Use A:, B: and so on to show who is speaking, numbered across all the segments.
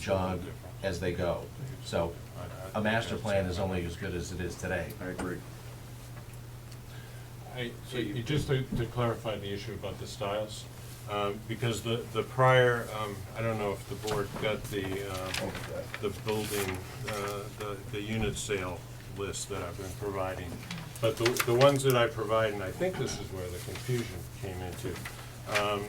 A: jog as they go. So a master plan is only as good as it is today.
B: I agree.
C: I, so you- just to to clarify the issue about the styles, um, because the, the prior, um, I don't know if the board got the, um, the building, uh, the, the unit sale list that I've been providing. But the, the ones that I provide, and I think this is where the confusion came into, um,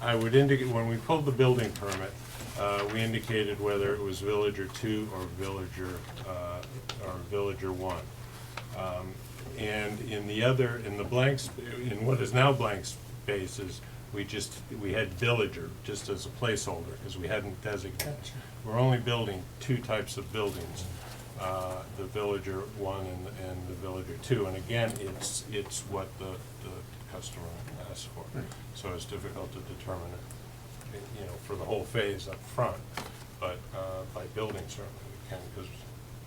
C: I would indicate, when we pulled the building permit, uh, we indicated whether it was villager two or villager, uh, or villager one. Um, And in the other, in the blank, sp- in what is now blank spaces, we just, we had villager, just as a placeholder, because we hadn't designated. We're only building two types of buildings, uh, the villager one and, and the villager two. And again, it's, it's what the, the customer asks for. So it's difficult to determine it, you know, for the whole phase up front. But uh, by building certainly we can, because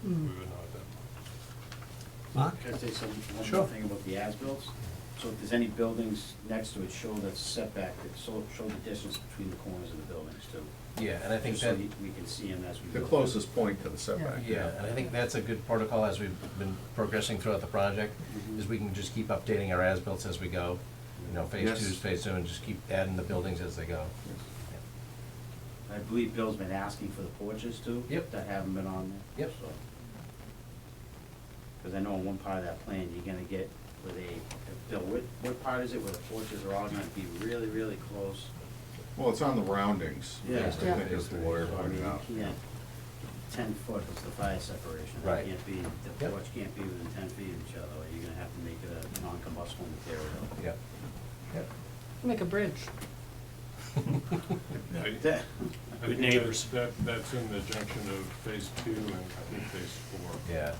C: we would know at that point.
D: Mark?
E: Can I say some, one
D: Sure.
E: more thing about the as-bills? So if there's any buildings next to it, show that setback, that show, show the distance between the corners of the buildings too.
A: Yeah, and I think
E: Just so
A: that,
E: we we can see them as we go.
B: The closest point to the setback.
A: yeah, and I think that's a good protocol as we've been progressing throughout the project, is we can just keep updating our as-bills as we go. You know, phase
B: Yes.
A: two, phase two, and just keep adding the buildings as they go.
E: I believe Bill's been asking for the porches too.
A: Yep.
E: That haven't been on there.
A: Yep.
E: Because I know in one part of that plan, you're gonna get where they, Bill, what, what part is it where the porches are all gonna be really, really close?
B: Well, it's on the roundings.
E: Yeah.
B: I
E: Yeah.
B: think as the lawyer
E: So, I mean,
B: pointed out.
E: you can't, ten foot is the fire separation. It
A: Right.
E: can't be, the
A: Yep.
E: porch can't be within ten feet of each other, or you're gonna have to make it a non-combustible material.
A: Yeah.
F: Make a bridge.
C: I-
E: That- Good
C: I think that-
E: neighbors.
C: That, that's in the junction of phase two and I think phase four.
A: Yeah,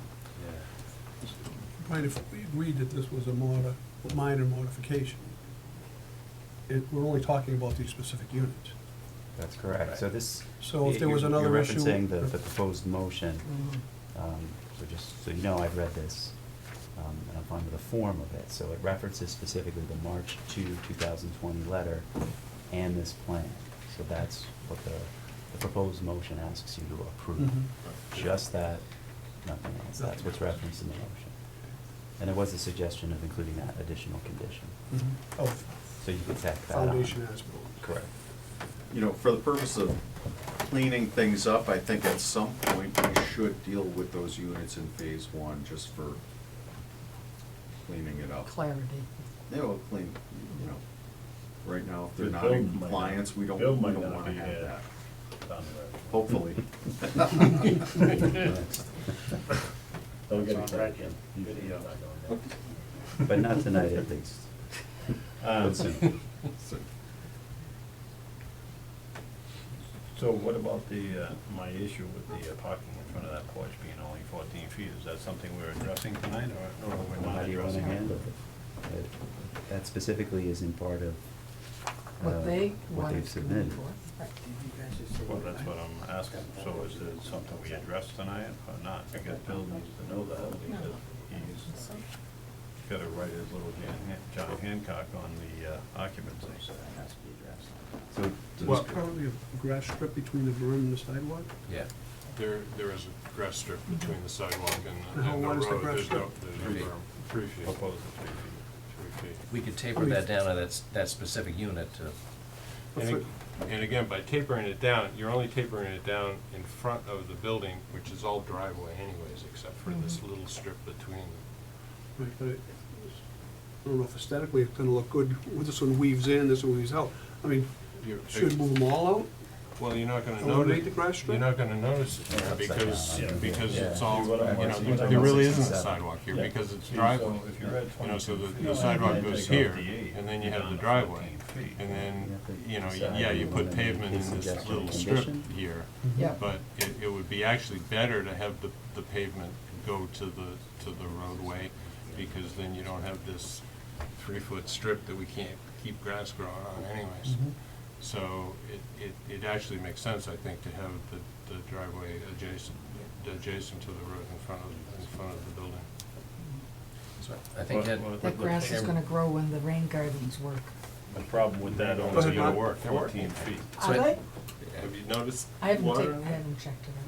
E: Yeah.
D: Mind if we agreed that this was a mod, minor modification? It, we're only talking about these specific units.
G: That's correct. So this.
D: So if there was
G: you-
D: another issue- Mm-hmm.
G: You're referencing the, the proposed motion. Um, So just, so you know, I've read this, um, and I'm fine with the form of it. So it references specifically the March 2, 2020 letter and this plan. So that's what the, the proposed motion asks you to approve.
D: Mhm.
G: Just that, nothing else. That's what's referenced in the motion. And there was a suggestion of including that additional condition.
D: Oh,
G: So you could tack that on.
D: foundation as-built.
G: Correct.
B: You know, for the purpose of cleaning things up, I think at some point we should deal with those units in phase one just for cleaning it up.
F: Clarity.
B: They will clean, you know, right now, if they're
H: The
B: not in
H: bill might not-
B: compliance, we don't,
H: bill
B: we
H: might
B: don't
H: not
B: wanna
H: be
B: have
H: had.
B: that,
H: down the
B: hopefully.
H: road. Don't get
E: It's on
H: excited.
E: record.
H: Good deal.
G: But not tonight at least.
H: Um,
G: But soon.
B: So,
H: So what about the, uh, my issue with the uh, parking in front of that porch being only fourteen feet? Is that something we're addressing tonight or or we're
G: How
H: not
G: do you want to
H: addressing? it?
G: handle it? That- That specifically isn't part of. uh,
F: What they
G: What
F: wanted
G: they've
F: to move
G: submitted.
F: for. Right.
H: Well, that's what I'm asking. So is it something we address tonight or not? Because Bill needs to know that because he's got to write his little Jan- John Hancock on the uh, occupancy.
E: So that has to be addressed.
G: So,
D: There's currently a grass strip between the berm and the sidewalk?
A: yeah.
C: There, there is a grass strip between the sidewalk and
D: And how
C: and the
D: wide is the
C: road.
D: grass
C: There's no,
D: strip?
C: there's no berm. Three feet.
H: Propose the three feet.
C: Three feet.
A: We could
D: I
A: taper
D: mean-
A: that down to that, s- that specific unit to,
C: And, ag- and again, by tapering it down, you're only tapering it down in front of the building, which is all driveway anyways, except
D: Mm-hmm.
C: for this little strip between them.
D: Right, but it- I don't know if aesthetically it's gonna look good, this one weaves in, this one weaves out. I mean,
C: You're-
D: should we move them all out?
C: Well, you're not gonna
D: Eliminate
C: notice,
D: the grass strip?
C: you're not gonna notice it here because,
H: Yeah.
C: because it's
G: Yeah.
C: all, you
H: What I'm-
C: know,
H: what I'm
C: there really isn't a
G: seven.
C: sidewalk here
H: Yeah.
C: because it's
H: So
C: driveway.
H: if you're at
C: You know, so the-
H: 22
C: the
H: feet,
C: sidewalk
H: then
C: goes
H: take
C: here,
H: off the eight,
C: and then you
H: you're
C: have
H: down
C: the
H: to
C: driveway,
H: 14 feet.
C: And then, you know,
G: Decide
C: yeah,
G: whether
C: you
G: you
C: put
G: wanna make
C: pavement
G: a
C: in this
G: suggested
C: little strip
G: condition.
C: here.
F: Yeah.
C: But it, it would be actually better to have the, the pavement go to the, to the roadway, because then you don't have this three-foot strip that we can't keep grass growing on anyways. So it, it, it actually makes sense, I think, to have the, the driveway adjacent, adjacent to the road in front of, in front of the building.
A: I think
H: What-
A: that,
H: what-
F: That grass is gonna grow when the rain gardens work.
A: The problem with that
D: Go
A: only
D: ahead,
A: gonna
D: Mark.
A: work
C: They're working.
A: fourteen feet.
I: So I-
F: Are they?
C: Have you noticed?
F: I haven't,
C: water
F: taken-
C: in
F: I
C: there?
F: haven't checked it out.